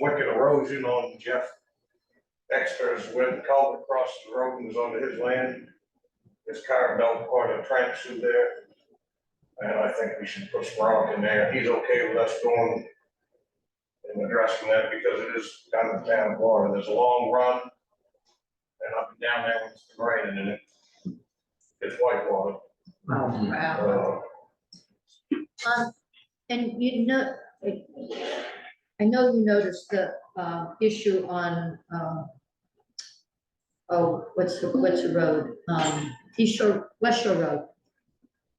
wicked erosion on Jeff Dexter's where the culvert across the road and was onto his land. His car built quite a trench through there. And I think we should put Sprout in there. He's okay with us going and addressing that because it is kind of down water. There's a long run and up and down there with some rain in it. It's white water. Oh, wow. Uh, Um, and you know, I know you noticed the, uh, issue on, um, oh, what's the, what's the road? Um, East Shore, West Shore Road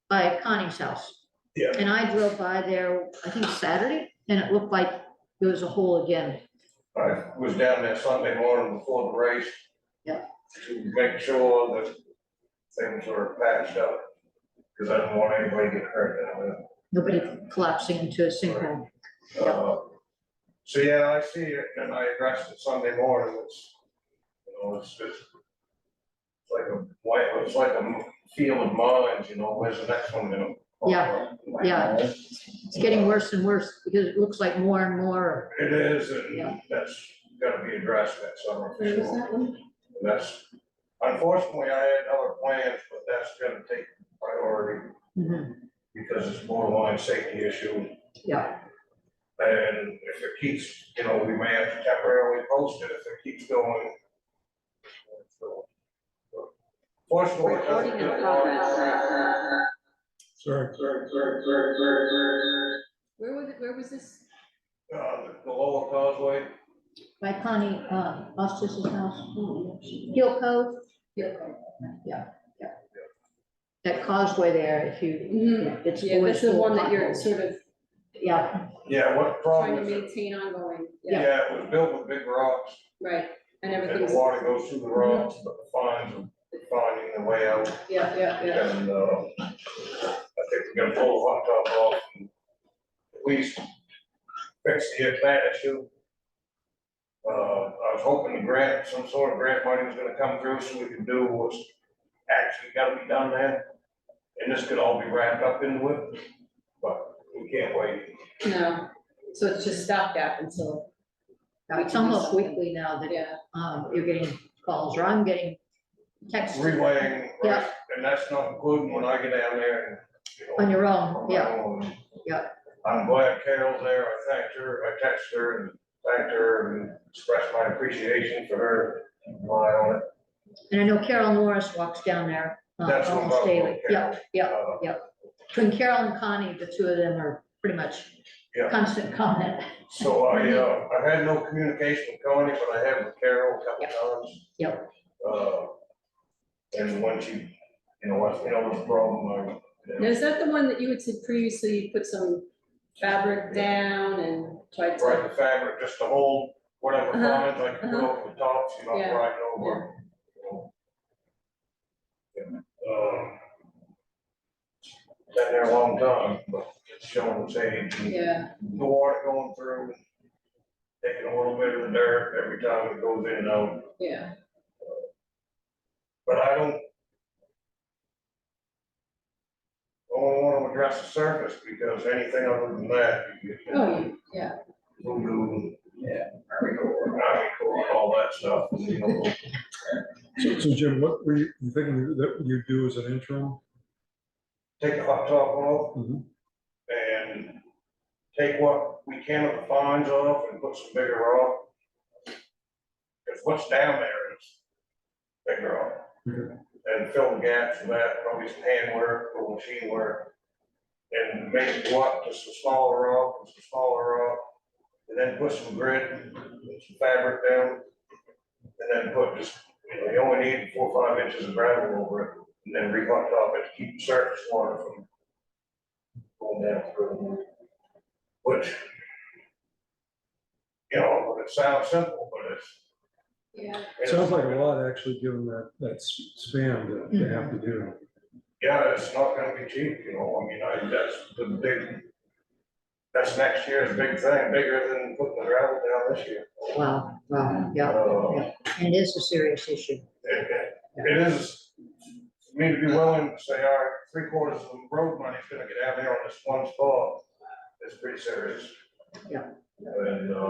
by Connie's house. Yeah. And I drove by there, I think Saturday, and it looked like there was a hole again. I was down there Sunday morning before the race. Yeah. To make sure that things were patched up, because I don't want anybody to get hurt down there. Nobody collapsing into a sinkhole. Uh, So, yeah, I see it, and I addressed it Sunday morning, it's, you know, it's just it's like a, white, it's like a field of mines, you know, where's the next one gonna? Yeah, yeah. It's getting worse and worse because it looks like more and more. It is, and Yeah. that's gotta be addressed that summer for Where was sure. that one? And That's, unfortunately, I had other plans, but that's gonna take priority Mhm. because it's more line safety issue. Yeah. And if it keeps, you know, we may have to temporarily post it if it keeps going. Fortunately, it doesn't Recording in get progress. Sorry. Where was, it- where was this? Uh, the- the lower causeway, By Connie, uh, Ostis's house. Hill Cove, that causeway there, if you, Mhm. it's Yeah, always that's the full of one that you're potholes. sort of Yeah, yeah, what trying problem to is it? maintain ongoing, yeah, Yeah, it was built with big rocks right, and and everything's, the water goes through the rocks, but the fines are finding their way out. yeah, yeah, yeah. And, uh, I think we're gonna pull the hot top off and at least fix the plant issue. Uh, I was hoping the grant, some sort of grant money was gonna come through so we could do what's actually gotta be done there. And this could all be wrapped up into it, but we can't wait. No, so it's just stopgap until, We it's can do almost something. weekly now that, yeah, um, you're getting calls, or I'm getting texts Relaying, right, Yeah. and that's not including when I get down there and, you know. on your own, yeah. yeah. I'm glad Carol's there, I thanked her, I texted her and thanked her and expressed my appreciation for her. while on it. And I know Carol Norris walks down there uh, That's what almost I'm daily, yeah, yeah. Uh, Between Carol and Connie, the two of them are pretty much Yeah. constant comment. So I, uh, I've had no communication with Connie, but I have with Carol a couple times. Yep. Uh, and when she, you know, once, you know, what's the problem, I. you now, know, is that the one that you had said previously, you put some fabric down and tried Right, to, the fabric, just to hold whatever Uh-huh, comments I can put over the tops, you know, Yeah. right over. you know. Yeah, um, Been there a long time, but it's showing its age, and yeah, the water going through, taking a little bit of the dirt every time it goes in and out, yeah, but I don't. I don't wanna address the surface, because anything other than that, you get. oh, yeah, voodoo. Yeah. all that stuff, you know. So so Jim, what were you you thinking that you do as an interim? Take the hot top off Mhm. and take what we can of the fines off and put some bigger rock. Cause what's down there is bigger rock. Okay. And fill the gaps with that, probably some hand work or machine work. And maybe what, just some smaller rock, and some smaller rock, and then put some grit, and some fabric down. And then put just, you know, you only need four, or five inches of gravel over it, and then re-hot top it, to keep the surface water from going down through. Which, you know, it sounds simple, but it's. yeah. it's- Sounds like a lot, actually, given that, that s- span to- to have to do. Yeah, it's not gonna be cheap, you know, I mean, I, that's the big, that's next year's big thing, bigger than putting the gravel down this year. Wow, wow, yeah, Uh, and it is a serious issue. It, it- it is, for me to be willing to say, all right, three quarters of the road money's gonna get out there on this one spot, it's pretty serious. Yeah. And, uh,